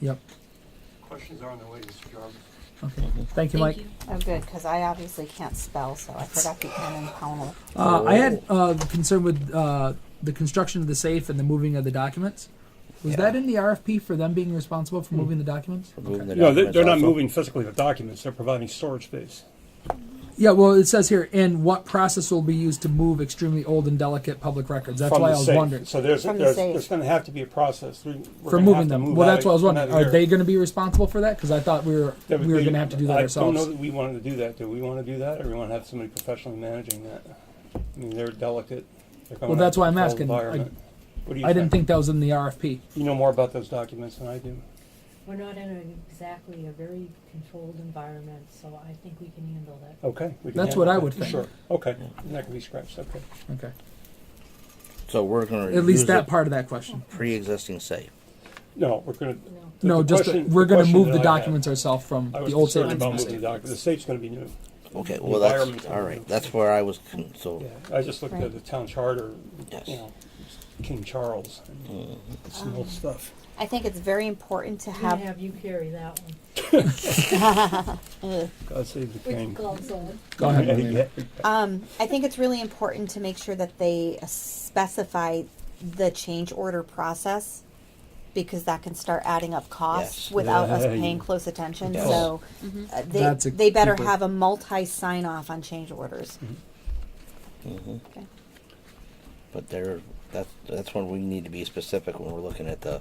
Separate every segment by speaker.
Speaker 1: Yep,
Speaker 2: Questions are on the way, Mr. Jarvis.
Speaker 1: okay. Thank you, Mike.
Speaker 3: Oh, good, because I obviously can't spell, so I forgot the N in Pownell.
Speaker 1: Uh, I had uh, concern with uh, the construction of the safe and the moving of the documents. Was that in the RFP for them being responsible for moving the documents?
Speaker 4: Moving the
Speaker 2: No, they're,
Speaker 4: documents
Speaker 2: they're not
Speaker 4: also.
Speaker 2: moving physically the documents, they're providing storage space.
Speaker 1: Yeah, well, it says here, and what process will be used to move extremely old and delicate public records? That's
Speaker 2: from
Speaker 1: why I
Speaker 2: the
Speaker 1: was
Speaker 2: safe.
Speaker 1: wondering.
Speaker 2: So there's,
Speaker 3: From the
Speaker 2: there's,
Speaker 3: safe.
Speaker 2: there's gonna have to be a process. We're
Speaker 1: For
Speaker 2: gonna have
Speaker 1: moving
Speaker 2: to
Speaker 1: them.
Speaker 2: move
Speaker 1: Well,
Speaker 2: out
Speaker 1: that's what I was
Speaker 2: of-
Speaker 1: wondering.
Speaker 2: out of
Speaker 1: Are they
Speaker 2: here.
Speaker 1: going to be responsible for that? Because I thought we were,
Speaker 2: That
Speaker 1: we
Speaker 2: would
Speaker 1: were
Speaker 2: be-
Speaker 1: going to have to do that
Speaker 2: I don't know
Speaker 1: ourselves.
Speaker 2: that we wanted to do that. Do we wanna do that, or we wanna have somebody professionally managing that? I mean, they're delicate. They're coming
Speaker 1: Well,
Speaker 2: out
Speaker 1: that's
Speaker 2: of
Speaker 1: why I'm
Speaker 2: controlled
Speaker 1: asking. I-
Speaker 2: environment. What do you
Speaker 1: I didn't think that was in the RFP.
Speaker 2: You know more about those documents than I do.
Speaker 5: We're not in a- exactly a very controlled environment, so I think we can handle that.
Speaker 2: Okay. we can
Speaker 1: That's
Speaker 2: handle
Speaker 1: what I
Speaker 2: that.
Speaker 1: would think.
Speaker 2: Sure, okay, and that can be scratched, okay.
Speaker 1: Okay.
Speaker 4: So we're gonna
Speaker 1: At least
Speaker 4: use
Speaker 1: that
Speaker 4: the
Speaker 1: part of that question.
Speaker 4: Pre-existing safe.
Speaker 2: No, we're gonna.
Speaker 5: No.
Speaker 2: the-
Speaker 1: No,
Speaker 2: the
Speaker 1: just,
Speaker 2: question-
Speaker 1: we're going to
Speaker 2: question
Speaker 1: move
Speaker 2: that
Speaker 1: the
Speaker 2: I had-
Speaker 1: documents ourselves from
Speaker 2: I
Speaker 1: the
Speaker 2: was
Speaker 1: old safe
Speaker 2: concerned
Speaker 1: into
Speaker 2: about
Speaker 1: the
Speaker 2: moving the
Speaker 1: safe.
Speaker 2: documents. The safe's gonna be new.
Speaker 4: Okay,
Speaker 2: The
Speaker 4: well, that's,
Speaker 2: environment's
Speaker 4: all
Speaker 2: gonna
Speaker 4: right,
Speaker 2: be-
Speaker 4: that's where I was, con- so,
Speaker 2: Yeah, I just looked at
Speaker 3: Right.
Speaker 2: the town charter,
Speaker 4: Yes.
Speaker 2: you know, King Charles, and
Speaker 1: Mm-hmm.
Speaker 2: it's some old stuff.
Speaker 3: I think it's very important to
Speaker 5: I'm gonna
Speaker 3: have,
Speaker 5: have you carry that one.
Speaker 2: God save the
Speaker 5: With
Speaker 2: king.
Speaker 5: gloves on.
Speaker 1: Go ahead, Marlena.
Speaker 3: um, I think it's really important to make sure that they uh, specify the change order process because that can start adding up costs
Speaker 4: Yes.
Speaker 3: without us
Speaker 2: Yeah, you-
Speaker 3: paying close attention.
Speaker 4: Yes.
Speaker 3: So uh,
Speaker 1: Mm-hmm. That's a
Speaker 3: they, they better
Speaker 1: keeper.
Speaker 3: have a multi sign off on change orders. Okay.
Speaker 4: Mm-hmm. but there, that's, that's when we need to be specific when we're looking at the,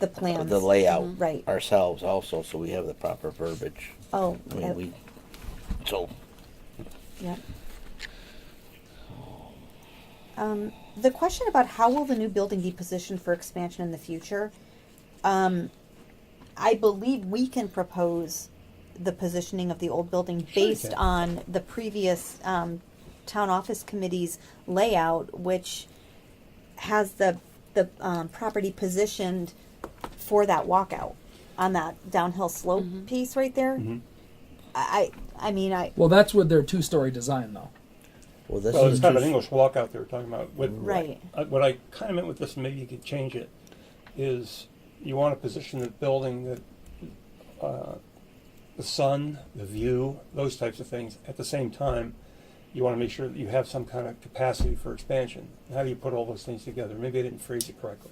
Speaker 3: The plans. Mm-hmm.
Speaker 4: the layout.
Speaker 3: Right.
Speaker 4: Ourselves also, so we have the proper verbiage.
Speaker 3: Oh,
Speaker 4: I mean,
Speaker 3: uh,
Speaker 4: we, so,
Speaker 3: Yep. Um, the question about how will the new building be positioned for expansion in the future? Um, I believe we can propose the positioning of the old building
Speaker 2: you
Speaker 3: based
Speaker 2: can.
Speaker 3: on the previous, um, town office committee's layout, which has the, the, um, property positioned for that walkout on that downhill slope piece right there.
Speaker 2: Mm-hmm.
Speaker 3: I, I, I mean, I,
Speaker 1: Well, that's with their two-story design, though.
Speaker 4: well, this
Speaker 2: Well, it's
Speaker 4: is
Speaker 2: kind of an
Speaker 4: just-
Speaker 2: English walkout they were talking about. What,
Speaker 3: Right.
Speaker 2: uh, What I kind of meant with this, and maybe you could change it, is you want to position the building that, uh, the sun, the view, those types of things. At the same time, you want to make sure that you have some kind of capacity for expansion. How do you put all those things together? Maybe I didn't phrase it correctly.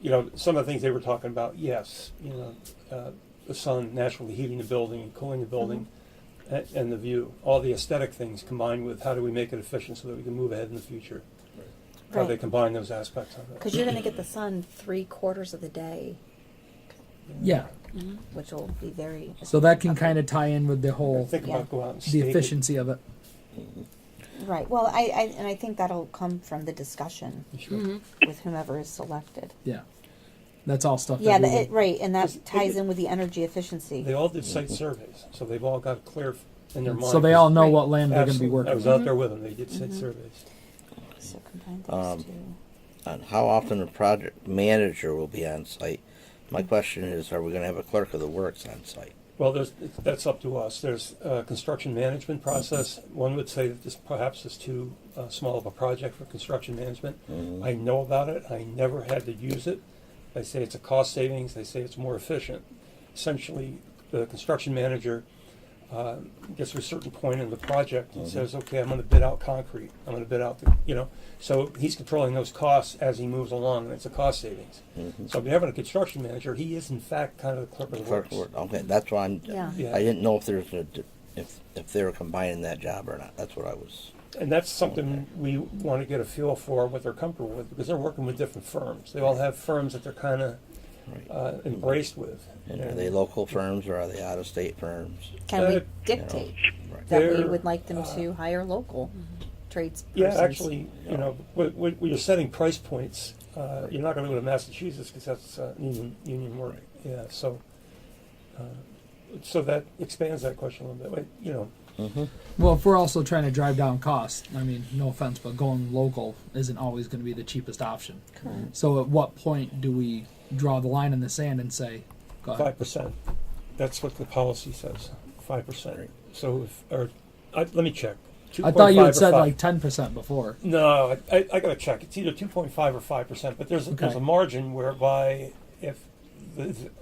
Speaker 2: You know, some of the things they were talking about, yes, you know, uh, the sun naturally heating the building and cooling the building a- and the view, all the aesthetic things combined with how do we make it efficient so that we can move ahead in the future? How they
Speaker 3: Right.
Speaker 2: combine those aspects of it.
Speaker 3: Because you're going to get the sun three quarters of the day,
Speaker 1: Yeah.
Speaker 3: which will be very.
Speaker 1: So that can kind of tie in with the whole
Speaker 2: Think
Speaker 3: Yeah.
Speaker 2: about go out and
Speaker 1: the
Speaker 2: stake it.
Speaker 1: efficiency of it.
Speaker 3: Right. Well, I, I and I think that'll come from the discussion
Speaker 2: Sure.
Speaker 3: with whomever is selected.
Speaker 1: Yeah, that's all stuff.
Speaker 3: Yeah,
Speaker 1: that we
Speaker 3: the, it,
Speaker 1: would-
Speaker 3: right, and
Speaker 2: Just-
Speaker 3: that ties in with the energy efficiency.
Speaker 2: They all did site surveys, so they've all got clear f- in their mind.
Speaker 1: so they all know
Speaker 3: Right.
Speaker 1: what land they're going to be
Speaker 2: Absolutely.
Speaker 1: working.
Speaker 2: I was
Speaker 1: with.
Speaker 2: out there with them, they did
Speaker 3: Mm-hmm.
Speaker 2: site surveys.
Speaker 3: So combine those
Speaker 4: Um,
Speaker 3: two.
Speaker 4: on how often a project manager will be on site. My question is, are we gonna have a clerk of the works on site?
Speaker 2: Well, there's, that's up to us. There's a construction management process. One would say that this perhaps is too uh, small of a project for construction management.
Speaker 4: Mm-hmm.
Speaker 2: I know about it. I never had to use it. They say it's a cost savings. They say it's more efficient. Essentially, the construction manager uh, gets to a certain point in the project
Speaker 4: Mm-hmm.
Speaker 2: and says, okay, I'm going to bid out concrete. I'm going to bid out, the you know. So he's controlling those costs as he moves along, and it's a cost savings. So if you're having a construction manager, he is in fact kind of the clerk of the
Speaker 4: Mm-hmm. Clerk of
Speaker 2: works.
Speaker 4: the work, okay, that's why I'm,
Speaker 3: Yeah.
Speaker 2: Yeah.
Speaker 4: I didn't know if there's a, d- if, if they were combining that job or not, that's what I was.
Speaker 2: And that's something we want to get a feel for what they're comfortable with because they're working with different firms. They all have firms that they're kind of
Speaker 4: Right.
Speaker 2: uh, embraced with.
Speaker 4: And are they local firms or are they out-of-state firms?
Speaker 3: Can
Speaker 2: uh,
Speaker 3: we
Speaker 2: you
Speaker 3: dictate
Speaker 4: Right.
Speaker 3: that we
Speaker 2: they're,
Speaker 3: would like them to hire local
Speaker 5: Mm-hmm.
Speaker 3: tradespersons?
Speaker 2: Yeah, actually, you know, when, when when you're setting price points, uh, you're not going to go to Massachusetts because that's uh, union union work. Yeah, so uh, so that expands that question a little bit. Like, You know,
Speaker 1: Well, if we're also trying to drive down costs, I mean, no offense, but going local isn't always going to be the cheapest option.
Speaker 3: Correct.
Speaker 1: So, at what point do we draw the line in the sand and say, "Go ahead"?
Speaker 2: Five percent. That's what the policy says. Five percent.
Speaker 4: Right.
Speaker 2: So if or I, let me check.
Speaker 1: I thought you
Speaker 2: 2.5 or
Speaker 1: had said
Speaker 2: five.
Speaker 1: like ten percent before.
Speaker 2: No, I, I, I gotta check. It's either two point five or five percent, but there's, there's
Speaker 1: Okay.
Speaker 2: a margin whereby if the-